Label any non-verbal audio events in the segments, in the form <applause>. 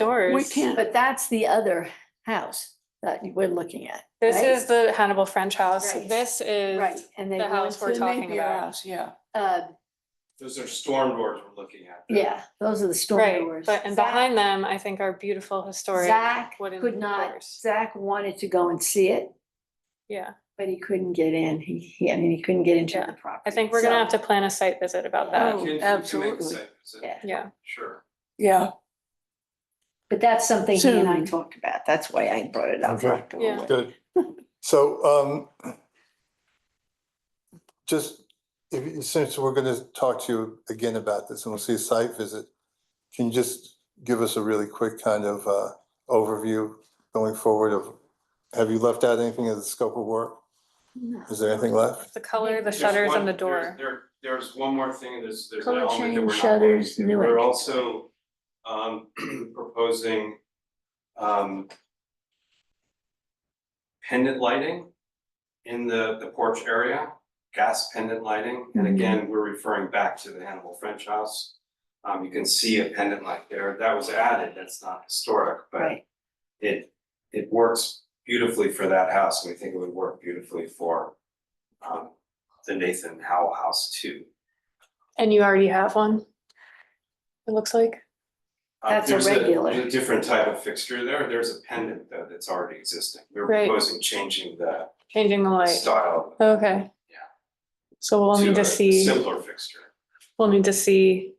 doors. We can't, but that's the other house that we're looking at. This right? is the Hannibal French house. Right. This Right, is, and they the go house into we're the talking neighbor about. house, Yeah, uh, Those are storm doors we're looking at. there. yeah, those are the storm right, doors. but and Zach- behind them, I think are beautiful historic Zach wooden could not, doors. Zach wanted to go and see it, Yeah, but he couldn't get in. He, he, I mean, he couldn't get into Yeah. the I property. think we're gonna so- have to plan a site visit about Yeah, that. you Oh, can- you can make a absolutely. site visit, Yeah. Yeah, Sure. Yeah, But that's something he and I So- talked about. That's why I brought it up. Okay. right away. Yeah. Good. So, um, just, if, since we're gonna talk to you again about this and we'll see a site visit, can you just give us a really quick kind of, uh, overview going forward of, have you left out anything of the scope of work? No. Is there anything left? the color, the There's shutters one- and the there's- door. There, there's one more thing, there's, there's an Color element that change, we're not. shutters, looking at. new We're entrance. also, um, <clears throat> proposing, um, pendant lighting in the, the porch area, gas pendant lighting. And Mhm. again, we're referring back to the Hannibal French House. Um, you can see a pendant light there. That was added. That's not historic, but Right, it, it works beautifully for that house, and we think it would work beautifully for um the Nathan Howell house too. And you already have one? It looks like. Uh, That's a there's regular. There's a different type of fixture there, there's a pendant though that's already existing, we're Right. proposing changing the Changing the light. style Okay. Yeah. So we'll need to to a see, simpler fixture. we'll need to see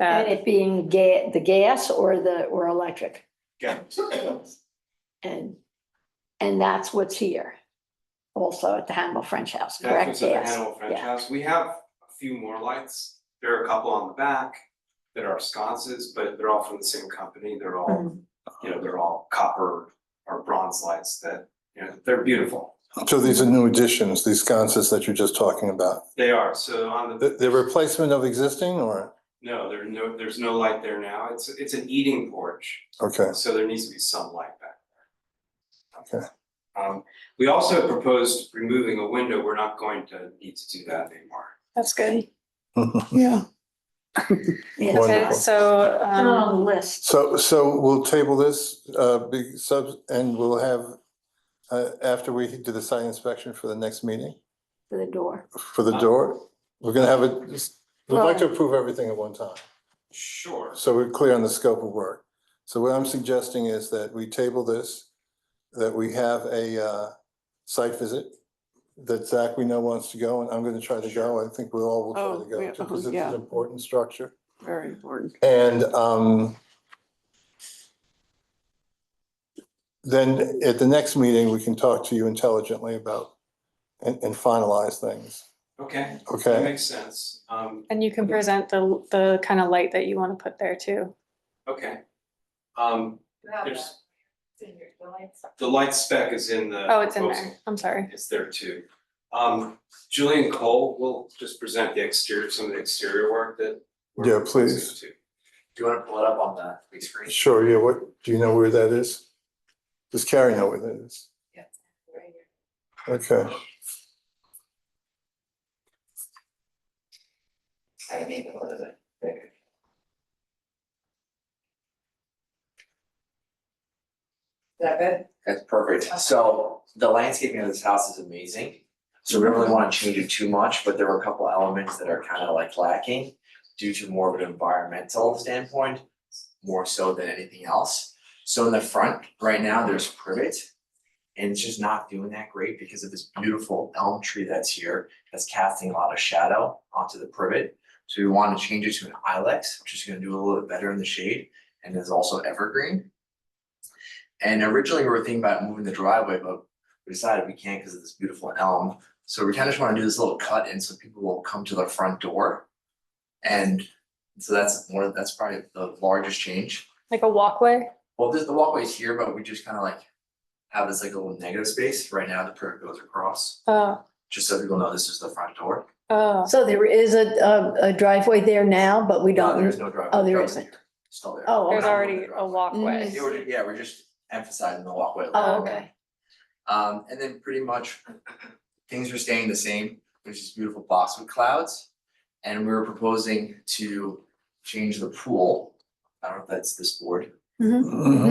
and that. it being ga- the gas or the, or electric. Yeah, <laughs> And, and that's what's here. Also at the Hannibal French House, that's correct? what's at the Yes. Hannibal French Yeah. House, we have a few more lights, there are a couple on the back that are sconces, but they're all from the same company, they're all Mm. you know, they're all copper or bronze lights that, you know, they're beautiful. So these are new additions, these sconces that you're just talking about. They are, so on The, the, the replacement of existing or, no, there are no, there's no light there now, it's, it's an eating porch, okay, so there needs to be some light back there. Okay. Um, we also proposed removing a window, we're not going to need to do that anymore. That's good. Mm-hmm. yeah. Yeah. Okay, Wonderful. so, Oh, um, list. So, so we'll table this, uh, be sub, and we'll have, uh, after we do the site inspection for the next meeting, to the door. for Uh-huh. the door, we're gonna have it, just- we'd like to approve everything at one time, Sure. so we're clear on the scope of work. So what I'm suggesting is that we table this, that we have a, uh, site visit that Zach we know wants to go, and I'm gonna try to go, I think we all will try Oh, to go, yeah, too, because uh-huh, it's yeah. an important structure. Very important. And um. Then at the next meeting, we can talk to you intelligently about and and finalize things, Okay, that okay? makes sense, um, and you can present the, the kind of light that you want to put there too. okay. Um, You have that there's, in your drawings. the light spec is in the. Oh, it's in proposal. there. I'm sorry. It's there too. Um, Julian Cole will just present the exterior, some of the exterior work that. we're Yeah, please. proposing Do you wanna pull it up on the big screen? Sure, yeah, what, do you know where that is? Does Carrie know where that is? Right here. Okay, I don't even know what it is. Is that good? That's perfect. So the landscaping of this house is amazing. So we don't really wanna change it too much, but there were a couple elements that are kinda like lacking due to more of an environmental standpoint, more so than anything else. So in the front, right now, there's privet. And it's just not doing that great because of this beautiful elm tree that's here, that's casting a lot of shadow onto the privet. So we wanna change it to an ilex, which is gonna do a little bit better in the shade and is also evergreen. And originally we were thinking about moving the driveway, but we decided we can't because of this beautiful elm. So we kind of just want to do this little cut in so people will come to the front door. And so that's one, of- that's probably the largest change. Like a walkway? Well, this, the walkway's here, but we just kind of like have this like a little negative space. Right now, the curb goes across, Oh, just so people know this is the front door. oh. So there is a, a a driveway there now, but we No, don't. There is no driveway. oh, there Driveway's isn't. here. Still there. Oh, There's okay. already a walkway. Yeah, we're, ju- yeah, we're just emphasizing the walkway. a Oh, little bit. okay. Um, and then pretty much things are staying the same, there's these beautiful boxwood clouds. And we were proposing to change the pool, I don't know if that's this board, Mhm.